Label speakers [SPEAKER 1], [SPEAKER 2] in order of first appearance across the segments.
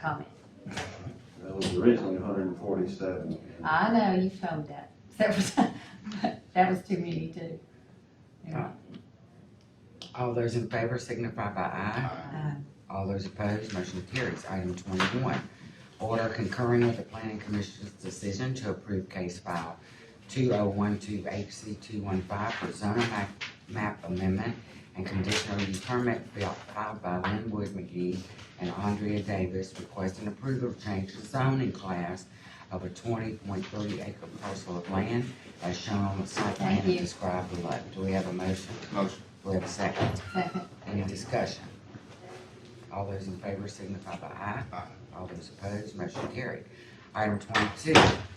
[SPEAKER 1] comment.
[SPEAKER 2] That was originally hundred and forty-seven.
[SPEAKER 1] I know, you've told that several times, but that was too many too. Yeah.
[SPEAKER 3] All those in favor signify by aye.
[SPEAKER 1] Uh,
[SPEAKER 3] All those opposed, motion carries. Item twenty-one, order concurring with the planning commission's decision to approve case file two oh one two HC two one five for zoning map, map amendment and conditional use permit fil- filed by Linwood McGee and Andrea Davis requesting approval to change the zoning class of a twenty point three acre parcel of land as shown on the site plan
[SPEAKER 1] Thank
[SPEAKER 3] and
[SPEAKER 1] you.
[SPEAKER 3] described below. Do we have a motion?
[SPEAKER 4] Motion.
[SPEAKER 3] Do we have a second?
[SPEAKER 1] Second,
[SPEAKER 3] Any discussion? All those in favor signify by aye.
[SPEAKER 4] Aye.
[SPEAKER 3] All those opposed, motion carried. Item twenty-two,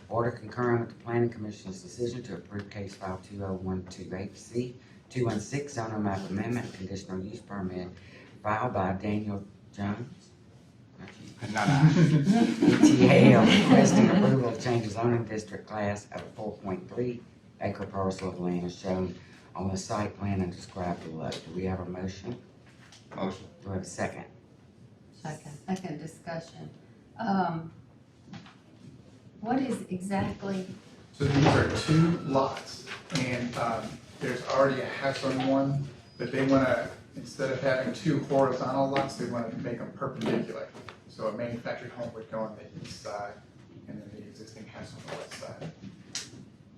[SPEAKER 3] order concurring with the planning commission's decision to approve case file two oh one two eight C two one six zoning map amendment conditional use permit filed by Daniel Jones. not you,
[SPEAKER 4] No, no.
[SPEAKER 3] ETL requesting approval of change of zoning district class of four point three acre parcel of land shown on the site plan and described below. Do we have a motion?
[SPEAKER 4] Motion.
[SPEAKER 3] Do we have a second?
[SPEAKER 1] second, second discussion. Um, what is exactly,
[SPEAKER 5] So these are two lots, and um, there's already a house on one, but they want to, instead of having two horizontal lots, they want to make them perpendicular. So a manufactured home would go on the east side, and then the existing house on the west side.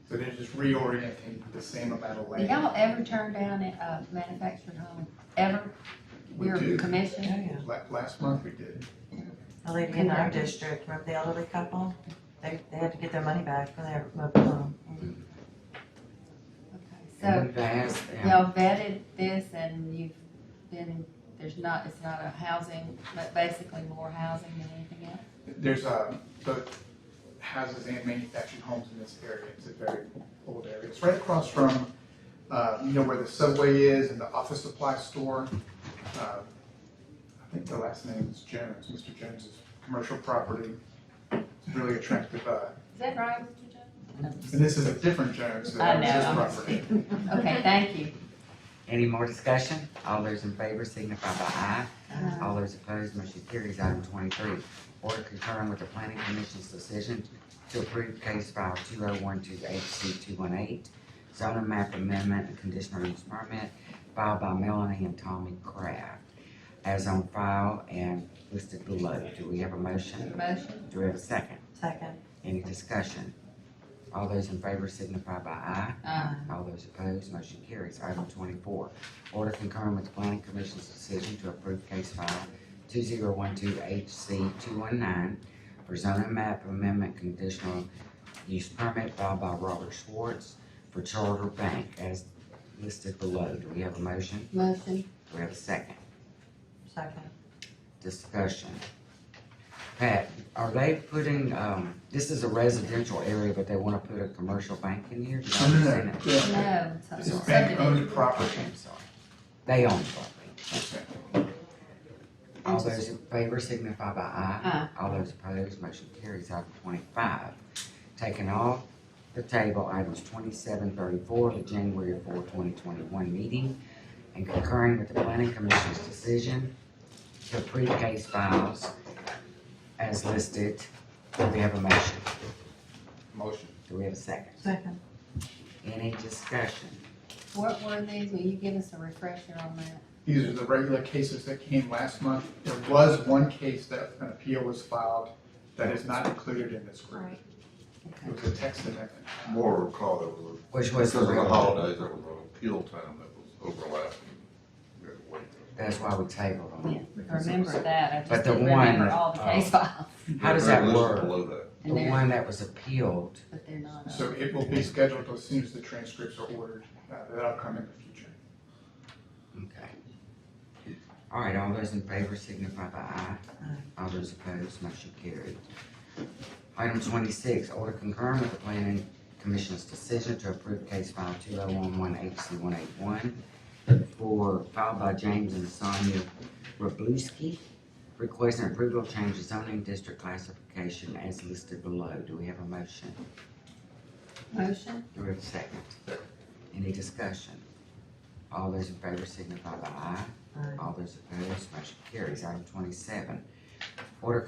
[SPEAKER 5] So they're just reorienting the same amount of
[SPEAKER 1] do
[SPEAKER 5] land.
[SPEAKER 1] y'all ever turn down a uh, manufactured home, ever?
[SPEAKER 5] We
[SPEAKER 1] Your
[SPEAKER 5] do.
[SPEAKER 1] commission?
[SPEAKER 6] Yeah.
[SPEAKER 5] La- Last month we did.
[SPEAKER 6] The lady in our district, remember the elderly couple? They, they had to get their money back for their mobile home.
[SPEAKER 1] Okay,
[SPEAKER 3] And
[SPEAKER 1] So
[SPEAKER 3] We've asked them,
[SPEAKER 1] y'all vetted this and you've been, there's not, it's not a housing, but basically more housing than anything else?
[SPEAKER 5] There's um, both houses and manufactured homes in this area. It's a very old area. It's right across from, uh, you know, where the subway is and the office supply store. Uh, I think the last name is Jones, Mr. Jones's commercial property. It's really attractive. uh,
[SPEAKER 1] Is that right, Mr. Jones?
[SPEAKER 5] And this is a different Jones
[SPEAKER 1] I
[SPEAKER 5] than
[SPEAKER 1] know,
[SPEAKER 5] his
[SPEAKER 1] I'm-
[SPEAKER 5] property.
[SPEAKER 1] Okay, thank you.
[SPEAKER 3] any more discussion? All those in favor signify by aye.
[SPEAKER 1] Uh,
[SPEAKER 3] All those opposed, motion carries. Item twenty-three, order concurring with the planning commission's decision to approve case file two oh one two HC two one eight, zoning map amendment and conditional use permit filed by Melanie and Tommy Kraft as on file and listed below. Do we have a motion?
[SPEAKER 1] Motion,
[SPEAKER 3] Do we have a second?
[SPEAKER 6] Second,
[SPEAKER 3] Any discussion? All those in favor signify by aye.
[SPEAKER 1] uh,
[SPEAKER 3] All those opposed, motion carries. Item twenty-four, order concurring with the planning commission's decision to approve case file two zero one two HC two one nine for zoning map amendment conditional use permit filed by Robert Schwartz for Charter Bank as listed below. Do we have a motion?
[SPEAKER 1] motion,
[SPEAKER 3] Do we have a second?
[SPEAKER 6] second.
[SPEAKER 3] Discussion. Pat, are they putting, um, this is a residential area, but they wanna put a commercial bank in here? Did I understand that?
[SPEAKER 5] Yeah.
[SPEAKER 1] no. so-
[SPEAKER 5] This is bank-owned property.
[SPEAKER 3] Okay, I'm sorry. They own the property. All those in favor signify by aye. All those opposed, motion carries. Item twenty-five, taking off the table items twenty-seven thirty-four, the January four, twenty twenty-one meeting, and concurring with the planning commission's decision to approve case files as listed. Do we have a motion?
[SPEAKER 4] Motion.
[SPEAKER 3] Do we have a second?
[SPEAKER 6] Second.
[SPEAKER 3] Any discussion?
[SPEAKER 1] What were these? Will you give us a refresher on that?
[SPEAKER 5] These are the regular cases that came last month. There was one case that an appeal was filed that is not included in this group.
[SPEAKER 1] Right.
[SPEAKER 5] It was a text amendment.
[SPEAKER 4] More recall that was,
[SPEAKER 3] Which was
[SPEAKER 4] because
[SPEAKER 3] the
[SPEAKER 4] of the
[SPEAKER 3] real?
[SPEAKER 4] holidays, there was an appeal time that was overlapping. We had to wait.
[SPEAKER 3] That's why we tabled them.
[SPEAKER 1] I Remember that, I just
[SPEAKER 3] But the
[SPEAKER 1] didn't remember
[SPEAKER 3] one,
[SPEAKER 1] all the case files,
[SPEAKER 3] How does that
[SPEAKER 4] Resolution
[SPEAKER 3] work?
[SPEAKER 4] Below that.
[SPEAKER 3] The
[SPEAKER 1] and they're,
[SPEAKER 3] one that was appealed
[SPEAKER 1] but they're not.
[SPEAKER 5] So it will be scheduled as soon as the transcripts are ordered. Uh, That'll come in the future.
[SPEAKER 3] Okay. All right, all those in favor signify by aye. All those opposed, motion carried. Item twenty-six, order concurring with the planning commission's decision to approve case file two oh one one HC one eight one for, filed by James and Sonia Rabluski, requesting approval of change of zoning district classification as listed below. Do we have a motion?
[SPEAKER 1] Motion,
[SPEAKER 3] Do we have a second? Any discussion? All those in favor signify by aye.
[SPEAKER 6] Aye.
[SPEAKER 3] All those opposed, motion carries. Item twenty-seven, order